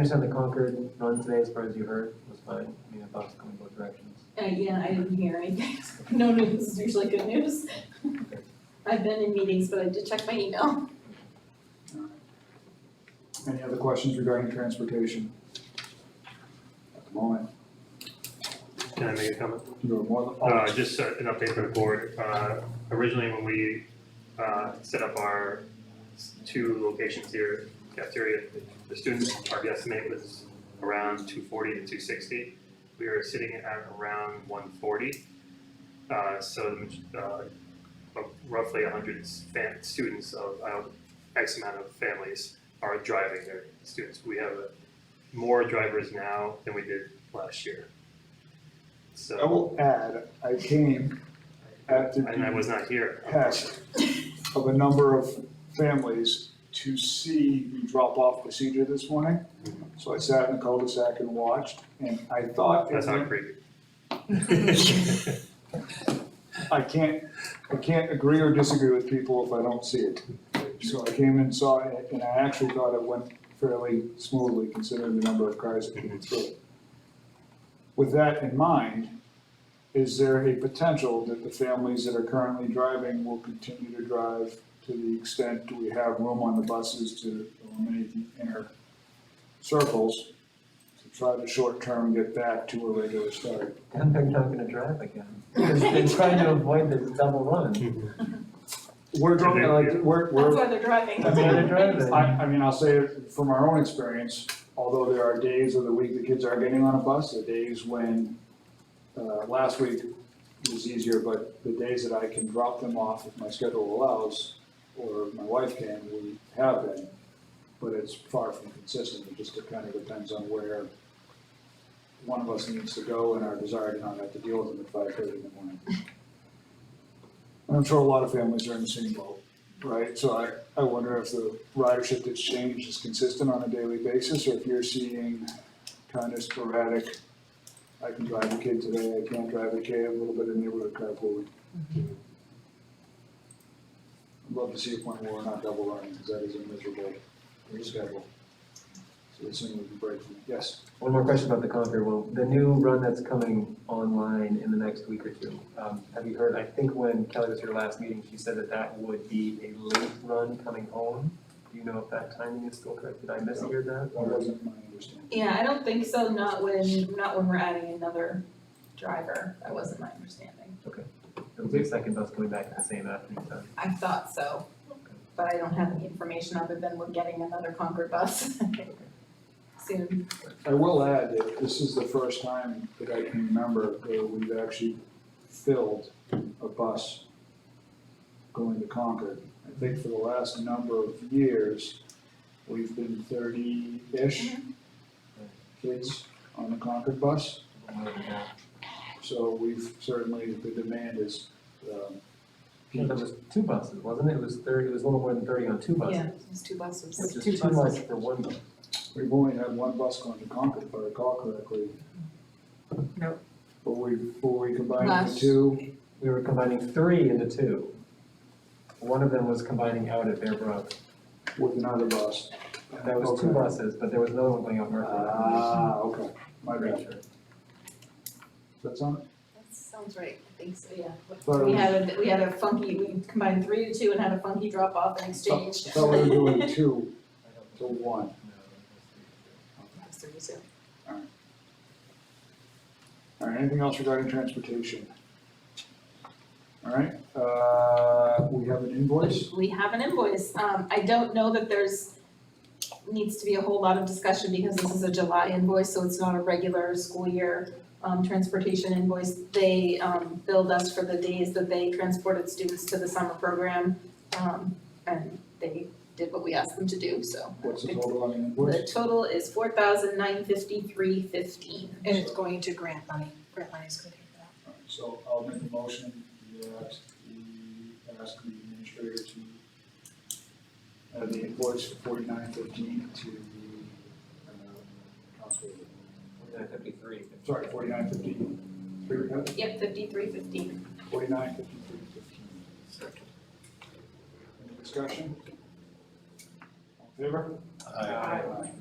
understand the Concord run today, as far as you heard, was fine. I mean, I thought it was going both directions. Uh, yeah, I didn't hear anything. No news is usually good news. I've been in meetings, but I did check my email. Any other questions regarding transportation? At the moment, Can I make a comment? you are more than, Uh, just uh, an update for the board. Uh, originally, when we, uh, set up our s- two locations here, cafeteria, the students, our estimate was around two forty to two sixty. We are sitting at around one forty. Uh, so, the maj- uh, of roughly hundred fan, students of, uh, X amount of families are driving their students. We have uh, more drivers now than we did last year. So. I will add, I came at the And I was not here. behest of a number of families to see the drop-off procedure this morning. So I sat in the cul-de-sac and watched, and I thought, That's not creepy. I can't, I can't agree or disagree with people if I don't see it. So I came and saw it, and I actually thought it went fairly smoothly considering the number of cars that came through. With that in mind, is there a potential that the families that are currently driving will continue to drive to the extent, do we have room on the buses to eliminate the inner circles? To try to short-term get back to a regular start. And they're not gonna drive again, because they're trying to avoid this double run. We're driving, like, we're, we're. That's why they're driving. I mean, they're driving. I, I mean, I'll say it from our own experience, although there are days of the week the kids are getting on a bus, the days when, uh, last week was easier, but the days that I can drop them off if my schedule allows, or my wife can, we have been. But it's far from consistent, it just kind of depends on where one of us needs to go and our desire to not have to deal with them at five thirty in the morning. And I'm sure a lot of families are in the same boat. Right, so I, I wonder if the ridership that's changed is consistent on a daily basis, or if you're seeing kind of sporadic, I can drive the kid today, I can't drive the kid, a little bit of neighborhood carpooling. I'd love to see a point where we're not double running, because that is a miserable schedule. So as soon as we can break, from- yes, One more question about the Concord, well, the new run that's coming online in the next week or two. Um, have you heard, I think when Kelly was here last meeting, she said that that would be a late run coming home. Do you know if that timing is still correct? Did I mishear that? that Or- wasn't my understanding. Yeah, I don't think so, not when, not when we're adding another driver. That wasn't my understanding. It'll be a second bus coming back at the same afternoon time. I thought so, but I don't have any information other than we're getting another Concord bus soon. I will add that this is the first time that I can remember that we've actually filled a bus going to Concord. I think for the last number of years, we've been thirty-ish kids on the Concord bus. So we've certainly, the demand is, um, Yeah, there was two buses, wasn't it? It was thirty, it was a little more than thirty on two Yeah, buses, it's two which buses. is too much for one bus. We've only had one bus going to Concord, if I recall correctly. Nope. But we, but we combined the Last- two. We were combining three into two. One of them was combining out at Bear Brook. with another bus. That was two Okay. buses, but there was another one going out Murphy. Ah, okay, my bad. That's on, That sounds right, I think so, yeah. Sorry. We had, a we had a funky, we combined three to two and had a funky drop off and thought exchange. thought we Oh, were doing two to one. That's three to two. All right, anything else regarding transportation? All right, uh, we have an invoice. We have an invoice. Um, I don't know that there's, needs to be a whole lot of discussion because this is a July invoice, so it's not a regular school year um, transportation invoice. They, um, billed us for the days that they transported students to the summer program. Um, and they did what we asked them to do, so. What's the total on the The invoice? total is four thousand nine fifty-three fifteen. And it's going to grant money, grant money is gonna pay for that. All right, So I'll make a motion that we ask the administrator to add the invoice for forty-nine fifteen to the, uh, council. Fifty-three. Sorry, forty-nine fifteen. Three, uh, we got? Yep, fifty-three fifteen. Forty-nine, fifty-three, fifteen. Second. Any discussion? All in favor? Aye. Aye.